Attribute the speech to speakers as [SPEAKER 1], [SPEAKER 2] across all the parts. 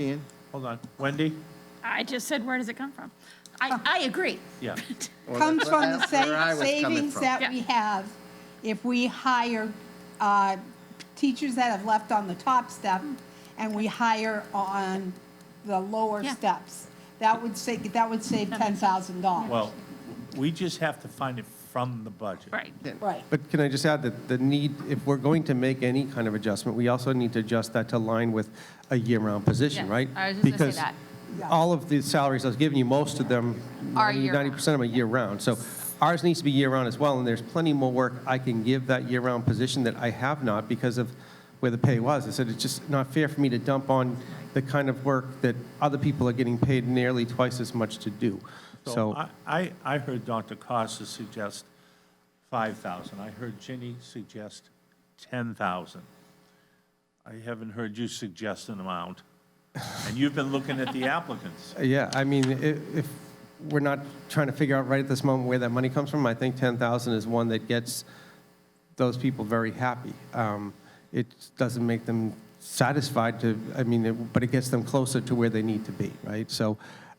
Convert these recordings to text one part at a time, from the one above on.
[SPEAKER 1] Ian, hold on. Wendy?
[SPEAKER 2] I just said, where does it come from? I, I agree.
[SPEAKER 1] Yeah. Or
[SPEAKER 3] comes
[SPEAKER 1] that's
[SPEAKER 3] from the
[SPEAKER 1] where I
[SPEAKER 3] same
[SPEAKER 1] was coming
[SPEAKER 3] savings
[SPEAKER 1] from.
[SPEAKER 3] that
[SPEAKER 2] Yeah.
[SPEAKER 3] we have if we hire uh, teachers that have left on the top step and we hire on the lower
[SPEAKER 2] Yeah.
[SPEAKER 3] steps. That would save, that would save ten thousand dollars.
[SPEAKER 1] Well, we just have to find it from the budget.
[SPEAKER 2] Right.
[SPEAKER 3] Right.
[SPEAKER 4] But can I just add that the need, if we're going to make any kind of adjustment, we also need to adjust that to line with a year-round position,
[SPEAKER 5] Yes,
[SPEAKER 4] right?
[SPEAKER 5] I was just gonna say that.
[SPEAKER 4] Because all of the salaries I was giving you, most of them,
[SPEAKER 5] Are
[SPEAKER 4] 90
[SPEAKER 5] year-round.
[SPEAKER 4] 90% of them are year-round. So ours needs to be year-round as well, and there's plenty more work I can give that year-round position that I have not because of where the pay was. I said, it's just not fair for me to dump on the kind of work that other people are getting paid nearly twice as much to do.
[SPEAKER 1] So
[SPEAKER 4] So,
[SPEAKER 1] I, I I heard Dr. Costa suggest 5,000. I heard Ginny suggest 10,000. I haven't heard you suggest an amount. And you've been looking at the applicants.
[SPEAKER 4] yeah, I mean, i- if we're not trying to figure out right at this moment where that money comes from, I think 10,000 is one that gets those people very happy. Um, It doesn't make them satisfied to, I mean, it- but it gets them closer to where they need to be, right? So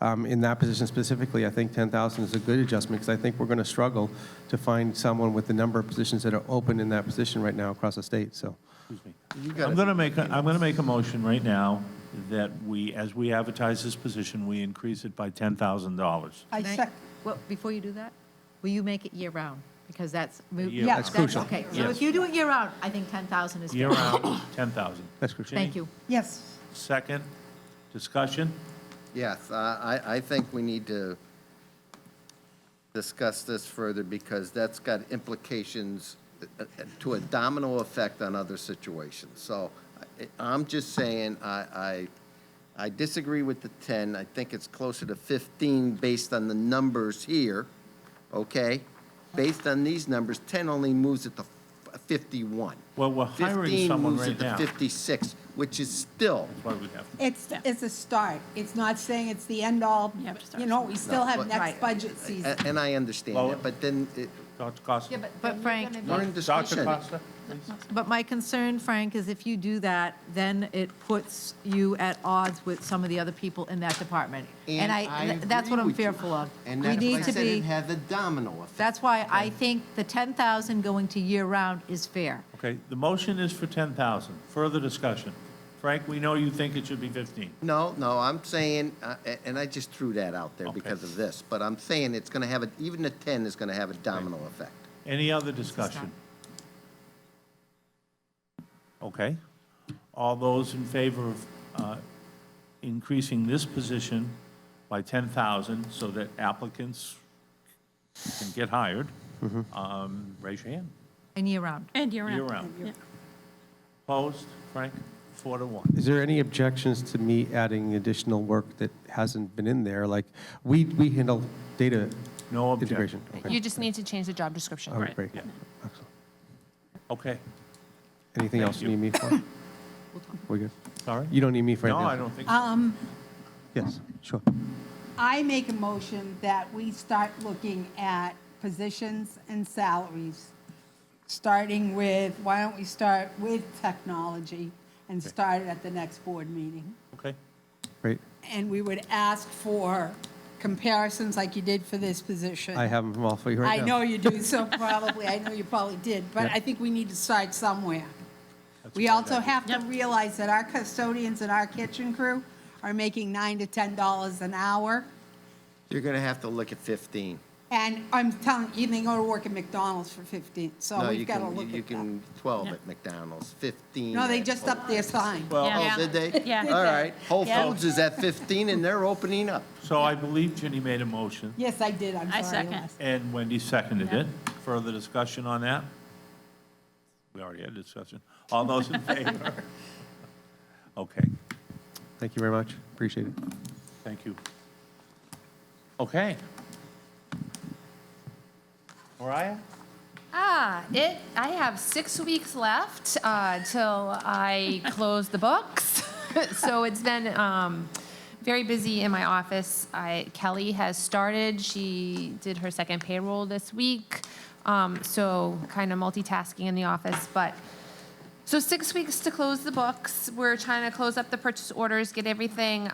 [SPEAKER 4] um, in that position specifically, I think 10,000 is a good adjustment because I think we're going to struggle to find someone with the number of positions that are open in that position right now across the state, so.
[SPEAKER 1] I'm going to make, a- I'm going to make a motion right now that we, as we advertise this position, we increase it by $10,000.
[SPEAKER 3] I
[SPEAKER 5] Can I-
[SPEAKER 3] sec,
[SPEAKER 5] Well, before you do that, will you make it year-round? Because that's. mo-
[SPEAKER 1] Year
[SPEAKER 3] That's
[SPEAKER 5] that's-
[SPEAKER 4] crucial.
[SPEAKER 5] Okay, so
[SPEAKER 1] Yes.
[SPEAKER 5] if you do it year-round, I think 10,000 is. fair.
[SPEAKER 1] Year-round, eh? 10,000.
[SPEAKER 4] That's crucial.
[SPEAKER 5] Thank you.
[SPEAKER 3] yes.
[SPEAKER 1] Second, discussion?
[SPEAKER 6] Yes, I, I I think we need to discuss this further because that's got implications uh, uh, to a domino effect on other situations. So I- I'm just saying, I, I, I disagree with the 10. I think it's closer to 15 based on the numbers here, okay? Based on these numbers, 10 only moves it to f- 51.
[SPEAKER 1] Well, we're hiring
[SPEAKER 6] 15
[SPEAKER 1] someone
[SPEAKER 6] moves it
[SPEAKER 1] right
[SPEAKER 6] to
[SPEAKER 1] now.
[SPEAKER 6] 56, which is still
[SPEAKER 1] That's why we have to-
[SPEAKER 3] It's,
[SPEAKER 2] Yeah.
[SPEAKER 3] it's a start. It's not saying it's the end all.
[SPEAKER 2] Yeah, but it starts
[SPEAKER 3] You know, we still have
[SPEAKER 6] but-
[SPEAKER 3] next budget season.
[SPEAKER 6] A- And I understand
[SPEAKER 1] Well-
[SPEAKER 6] that, but then it-
[SPEAKER 1] Dr. Costa?
[SPEAKER 5] But Frank,
[SPEAKER 6] we're in
[SPEAKER 1] Dr.
[SPEAKER 6] discussion.
[SPEAKER 1] Costa?
[SPEAKER 5] but my concern, Frank, is if you do that, then it puts you at odds with some of the other people in that department. And I, that's what
[SPEAKER 6] agree
[SPEAKER 5] I'm
[SPEAKER 6] with you.
[SPEAKER 5] fearful of.
[SPEAKER 6] And
[SPEAKER 5] We
[SPEAKER 6] that's why I
[SPEAKER 5] need to
[SPEAKER 6] said it
[SPEAKER 5] be,
[SPEAKER 6] has a domino effect.
[SPEAKER 5] that's why I think the 10,000 going to year-round is fair.
[SPEAKER 1] Okay, the motion is for 10,000. Further discussion. Frank, we know you think it should be 15.
[SPEAKER 6] No, no, I'm saying, uh, a- and I just threw that out there because of this, but I'm saying it's going to have, a even a 10 is going to have a domino effect.
[SPEAKER 1] Any other discussion? Okay. All those in favor of uh, increasing this position by 10,000 so that applicants can get hired,
[SPEAKER 6] Mm-hmm.
[SPEAKER 1] um, raise your hand.
[SPEAKER 5] And year-round.
[SPEAKER 2] And year round.
[SPEAKER 1] Year-round.
[SPEAKER 2] Yeah.
[SPEAKER 1] Opposed? Frank? Four to one.
[SPEAKER 4] Is there any objections to me adding additional work that hasn't been in there? Like, we, we handle data
[SPEAKER 1] No
[SPEAKER 4] integration.
[SPEAKER 1] objection.
[SPEAKER 4] Okay.
[SPEAKER 7] You just need to change the job description.
[SPEAKER 4] All right, great.
[SPEAKER 1] yeah.
[SPEAKER 4] Excellent.
[SPEAKER 1] Okay,
[SPEAKER 4] Anything
[SPEAKER 1] Thank
[SPEAKER 4] else you
[SPEAKER 1] you.
[SPEAKER 4] need me for? We're good.
[SPEAKER 1] sorry?
[SPEAKER 4] You don't need me for
[SPEAKER 1] No,
[SPEAKER 4] anything?
[SPEAKER 1] I don't think so.
[SPEAKER 4] Yes, sure.
[SPEAKER 3] I make a motion that we start looking at positions and salaries, starting with, why don't we start with technology and start it at the next board meeting?
[SPEAKER 1] Okay,
[SPEAKER 4] Great.
[SPEAKER 3] And we would ask for comparisons like you did for this position.
[SPEAKER 4] I have them all for you
[SPEAKER 3] I
[SPEAKER 4] right now.
[SPEAKER 3] know you do, so probably, I know you probably did, but
[SPEAKER 4] Yeah.
[SPEAKER 3] I think we need to start somewhere.
[SPEAKER 1] That's a
[SPEAKER 3] We
[SPEAKER 1] great
[SPEAKER 3] also
[SPEAKER 1] idea.
[SPEAKER 3] have to realize that our custodians and our kitchen crew are making nine to ten dollars an hour.
[SPEAKER 6] You're going to have to look at 15.
[SPEAKER 3] And I'm telling, you they go to work at McDonald's for 15, so
[SPEAKER 6] No, you
[SPEAKER 3] we've got to
[SPEAKER 6] can,
[SPEAKER 3] look
[SPEAKER 6] you
[SPEAKER 3] at that.
[SPEAKER 6] can, 12 at McDonald's, 15.
[SPEAKER 3] No, they
[SPEAKER 6] at
[SPEAKER 3] just
[SPEAKER 6] Whole
[SPEAKER 3] upped their
[SPEAKER 6] Foods.
[SPEAKER 3] sign.
[SPEAKER 6] Well,
[SPEAKER 2] Yeah.
[SPEAKER 6] oh, did they?
[SPEAKER 2] Yeah.
[SPEAKER 6] All right, Whole
[SPEAKER 2] Yeah.
[SPEAKER 6] Foods is at 15 and they're opening up.
[SPEAKER 1] so I believe Ginny made a motion,
[SPEAKER 3] Yes, I did, I'm
[SPEAKER 2] I
[SPEAKER 3] sorry.
[SPEAKER 2] second.
[SPEAKER 3] Les.
[SPEAKER 1] and Wendy seconded it. Further discussion on that? We already had discussion. All those in favor? Okay,
[SPEAKER 4] Thank you very much. Appreciate it.
[SPEAKER 1] thank you. Okay. Mariah?
[SPEAKER 7] Ah, it. I have six weeks left uh, till I close the books. so it's been um, very busy in my office. I, Kelly has started. She did her second payroll this week. Um, so kind of multitasking in the office, but So six weeks to close the books. We're trying to close up the purchase orders, get everything